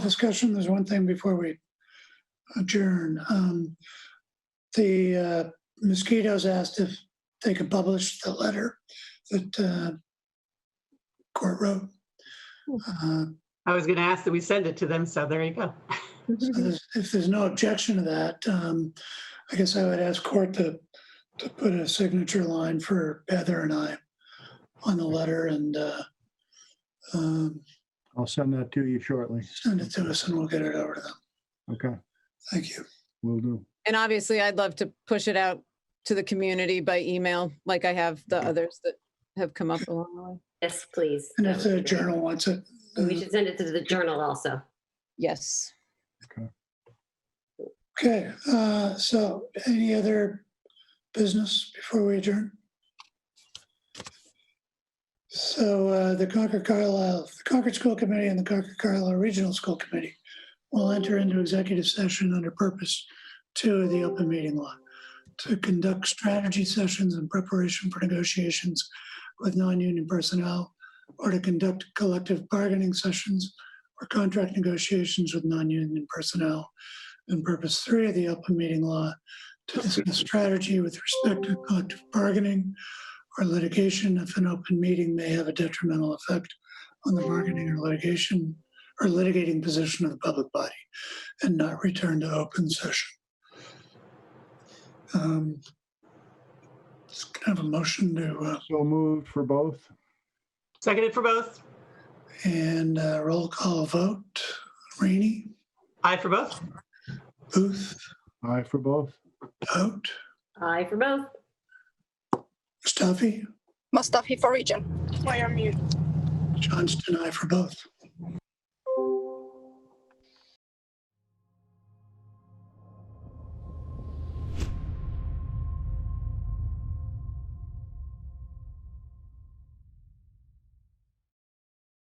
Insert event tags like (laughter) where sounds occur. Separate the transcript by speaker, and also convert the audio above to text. Speaker 1: discussion, there's one thing before we adjourn. Um, The uh, mosquitoes asked if they could publish the letter that uh, court wrote. Uh,
Speaker 2: I was going to ask that we send it to them, so there you go.
Speaker 1: so there's- If there's no objection to that, um, I guess I would ask court to, to put a signature line for Heather and I on the letter and uh, um,
Speaker 3: I'll send that to you shortly.
Speaker 1: send it to us and we'll get it over to them.
Speaker 3: Okay,
Speaker 1: Thank you.
Speaker 3: we will do.
Speaker 4: (laughs) And obviously, I'd love to push it out to the community by email, like I have the others that have come up along the way.
Speaker 5: Yes, please.
Speaker 1: And
Speaker 5: That
Speaker 1: if
Speaker 5: would
Speaker 1: the
Speaker 5: be great.
Speaker 1: journal wants it.
Speaker 5: And We should send it to the journal also.
Speaker 4: Yes.
Speaker 1: Okay, uh, so any other business before we adjourn? So uh, the Concord Carlisle, the Concord School Committee and the Concord Carlisle Regional School Committee will enter into executive session under purpose two of the open meeting law to conduct strategy sessions in preparation for negotiations with non-union personnel or to conduct collective bargaining sessions or contract negotiations with non-union personnel and purpose three of the open meeting law to discuss strategy with respect to collective bargaining or litigation if an open meeting may have a detrimental effect on the bargaining or litigation or litigating position of the public body and not return to open session. Um, It's kind of a motion to, uh,
Speaker 3: So moved for both.
Speaker 2: Seconded for both.
Speaker 1: and uh, roll call vote. Rainey,
Speaker 2: Aye for both.
Speaker 1: Booth,
Speaker 3: Aye for both.
Speaker 1: Vote,
Speaker 5: Aye for both.
Speaker 1: Stuffy,
Speaker 6: Mustafi for region. I am mute.
Speaker 1: Johnston, I for both.